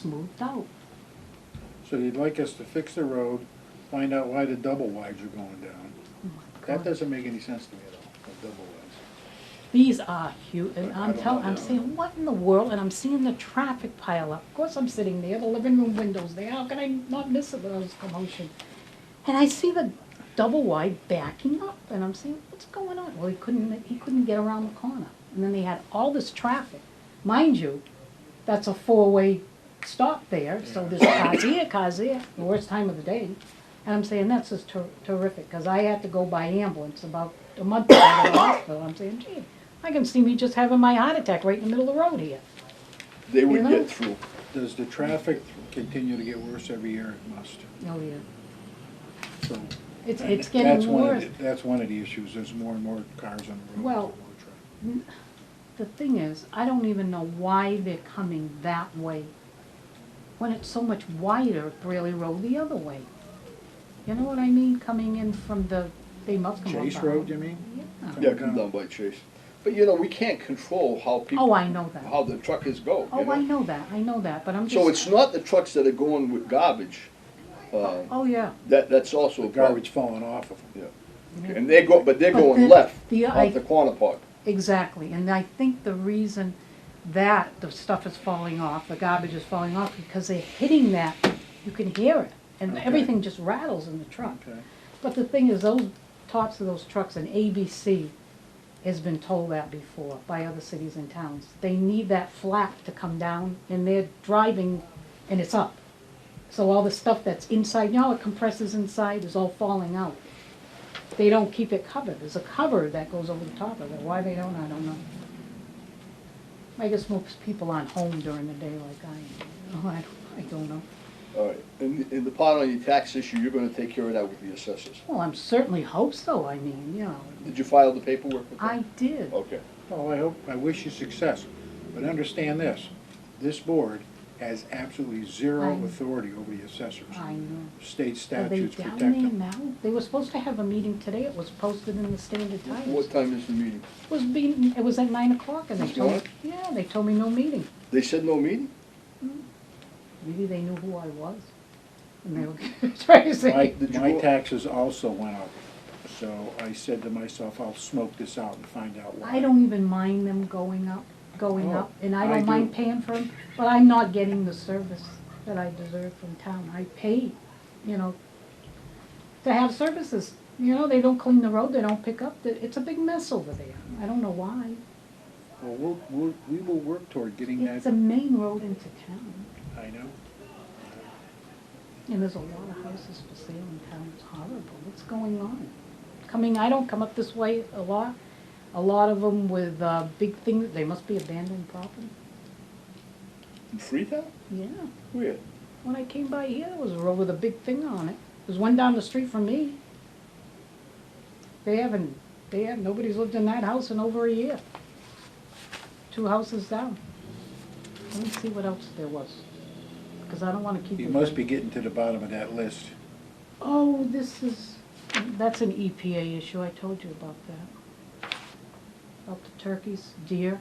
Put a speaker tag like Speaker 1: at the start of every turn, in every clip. Speaker 1: smoothed out.
Speaker 2: So you'd like us to fix the road, find out why the double wides are going down.
Speaker 1: Oh my
Speaker 2: That
Speaker 1: God.
Speaker 2: doesn't make any sense to me at all, the double wides.
Speaker 1: These are huge, and
Speaker 2: I
Speaker 1: I'm
Speaker 2: don't
Speaker 1: telling,
Speaker 2: know.
Speaker 1: I'm saying, what in the world, and I'm seeing the traffic pile up. Of course, I'm sitting there, the living room windows there, how can I not miss it, those commotion? And I see the double wide backing up, and I'm saying, what's going on? Well, he couldn't, he couldn't get around the corner, and then they had all this traffic. Mind you, that's a four-way stop there, so there's cars here, cars there, the worst time of the day. And I'm saying, that's just ter- terrific, because I had to go by ambulance about a month ago to the hospital. I'm saying, gee, I can see me just having my heart attack right in the middle of the road here.
Speaker 3: They
Speaker 1: You
Speaker 3: would
Speaker 1: know?
Speaker 3: get through.
Speaker 2: Does the traffic continue to get worse every year? It must,
Speaker 1: Oh, yeah.
Speaker 2: so.
Speaker 1: It's, it's
Speaker 2: that's
Speaker 1: getting
Speaker 2: one of
Speaker 1: worse.
Speaker 2: the- That's one of the issues, there's more and more cars on the road.
Speaker 1: Well- The thing is, I don't even know why they're coming that way, when it's so much wider, Brayley Road the other way. You know what I mean, coming in from the, they must come up
Speaker 2: Chase
Speaker 1: behind.
Speaker 2: Road, you mean?
Speaker 1: Yeah.
Speaker 3: Yeah, come down by Chase. But you know, we can't control how people.
Speaker 1: Oh, I know that.
Speaker 3: How the truckers go, you
Speaker 1: Oh, I
Speaker 3: know?
Speaker 1: know that, I know that, but I'm just.
Speaker 3: So it's not the trucks that are going with garbage, uh,
Speaker 1: Oh, yeah.
Speaker 3: that, that's also
Speaker 2: The
Speaker 3: a problem.
Speaker 2: garbage falling off of them.
Speaker 3: And they go, but they're
Speaker 1: But
Speaker 3: going
Speaker 1: the-
Speaker 3: left,
Speaker 1: the- I-
Speaker 3: off the corner park.
Speaker 1: Exactly, and I think the reason that the stuff is falling off, the garbage is falling off, because they're hitting that, you can hear it, and
Speaker 2: Okay.
Speaker 1: everything just rattles in the truck.
Speaker 2: Okay.
Speaker 1: But the thing is, those tops of those trucks, and ABC has been told that before by other cities and towns. They need that flap to come down, and they're driving, and it's up. So all the stuff that's inside, you know, how it compresses inside, is all falling out. They don't keep it covered. There's a cover that goes over the top of it. Why they don't, I don't know. I guess most people aren't home during the day like I am. Oh, I don't, I don't know.
Speaker 3: All right, and, and the part on your tax issue, you're gonna take care of that with the assessors.
Speaker 1: Well, I'm certainly hope so, I mean, you know.
Speaker 3: Did you file the paperwork with them?
Speaker 1: I did.
Speaker 3: Okay,
Speaker 2: Well, I hope, I wish you success, but understand this, this board has absolutely zero
Speaker 1: I-
Speaker 2: authority over the assessors.
Speaker 1: I know. Are
Speaker 2: State
Speaker 1: they
Speaker 2: statutes
Speaker 1: down
Speaker 2: protect
Speaker 1: there
Speaker 2: them.
Speaker 1: now? They were supposed to have a meeting today. It was posted in the Standard Times.
Speaker 3: what time is the meeting?
Speaker 1: It was being, it was at nine o'clock and they
Speaker 3: This
Speaker 1: told me,
Speaker 3: morning?
Speaker 1: yeah, they told me no meeting.
Speaker 3: They said no meeting?
Speaker 1: Maybe they knew who I was. And they were trying to
Speaker 2: My,
Speaker 1: say,
Speaker 3: Did you
Speaker 2: my
Speaker 3: go-
Speaker 2: taxes also went up, so I said to myself, I'll smoke this out and find out why.
Speaker 1: I don't even mind them going up, going
Speaker 2: Oh,
Speaker 1: up, and I
Speaker 2: I
Speaker 1: don't mind
Speaker 2: do.
Speaker 1: paying for them, but I'm not getting the service that I deserve from town. I pay, you know, to have services. You know, they don't clean the road, they don't pick up, the- it's a big mess over there. I don't know why.
Speaker 2: Well, we'll, we'll, we will work toward getting
Speaker 1: It's a
Speaker 2: that,
Speaker 1: main road into town,
Speaker 2: I know.
Speaker 1: and there's a lot of houses for sale in town, it's horrible, what's going on? Coming, I don't come up this way a lot, a lot of them with, uh, big things, they must be abandoned property.
Speaker 3: In Freetown?
Speaker 1: Yeah,
Speaker 3: Weird.
Speaker 1: when I came by here, there was a road with a big thing on it, there's one down the street from me. They haven't, they have, nobody's lived in that house in over a year. Two houses down. Let me see what else there was, because I don't wanna keep.
Speaker 2: You
Speaker 1: it
Speaker 2: must
Speaker 1: very-
Speaker 2: be getting to the bottom of that list.
Speaker 1: Oh, this is, that's an EPA issue, I told you about that. About the turkeys, deer.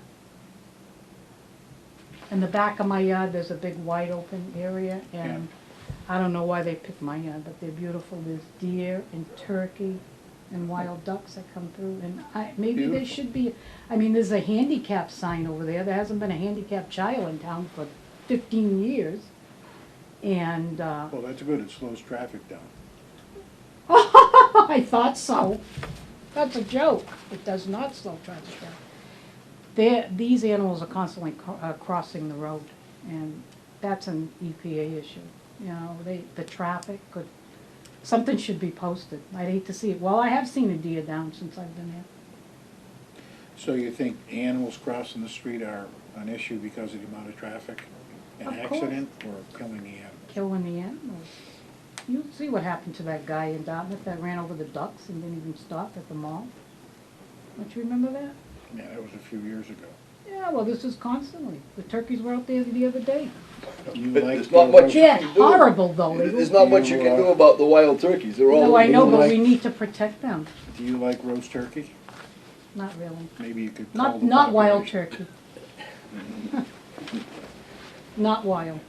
Speaker 1: In the back of my yard, there's a big wide open area, and I don't know why they picked my yard, but they're beautiful, there's deer and turkey and wild ducks that come through, and I, maybe there
Speaker 2: Beautiful.
Speaker 1: should be, I mean, there's a handicap sign over there, there hasn't been a handicap child in town for fifteen years, and, uh,
Speaker 2: Well, that's good, it slows traffic down.
Speaker 1: I thought so. That's a joke. It does not slow traffic down. They're, these animals are constantly cro- uh, crossing the road, and that's an EPA issue. You know, they, the traffic could, something should be posted. I'd hate to see it. Well, I have seen a deer down since I've been here.
Speaker 2: So you think animals crossing the street are an issue because of the amount of traffic? An
Speaker 1: Of course.
Speaker 2: accident or killing the animal?
Speaker 1: Killing the animals. You see what happened to that guy in Dartmouth that ran over the ducks and didn't even stop at the mall? Don't you remember that?
Speaker 2: Yeah, that was a few years ago.
Speaker 1: Yeah, well, this is constantly. The turkeys were out there the other day.
Speaker 2: You
Speaker 3: But
Speaker 2: like
Speaker 3: there's not
Speaker 2: the
Speaker 3: much-
Speaker 2: road-
Speaker 3: you
Speaker 1: They're
Speaker 3: can do it.
Speaker 1: horrible though. They
Speaker 3: There's
Speaker 1: don't-
Speaker 3: not much you can do about the wild turkeys, they're all.
Speaker 1: No, I know, but we
Speaker 2: like-
Speaker 1: need to protect them.
Speaker 2: Do you like roast turkey?
Speaker 1: Not really.
Speaker 2: Maybe you could call
Speaker 1: Not,
Speaker 2: the
Speaker 1: not wild
Speaker 2: population.
Speaker 1: turkey. Not wild.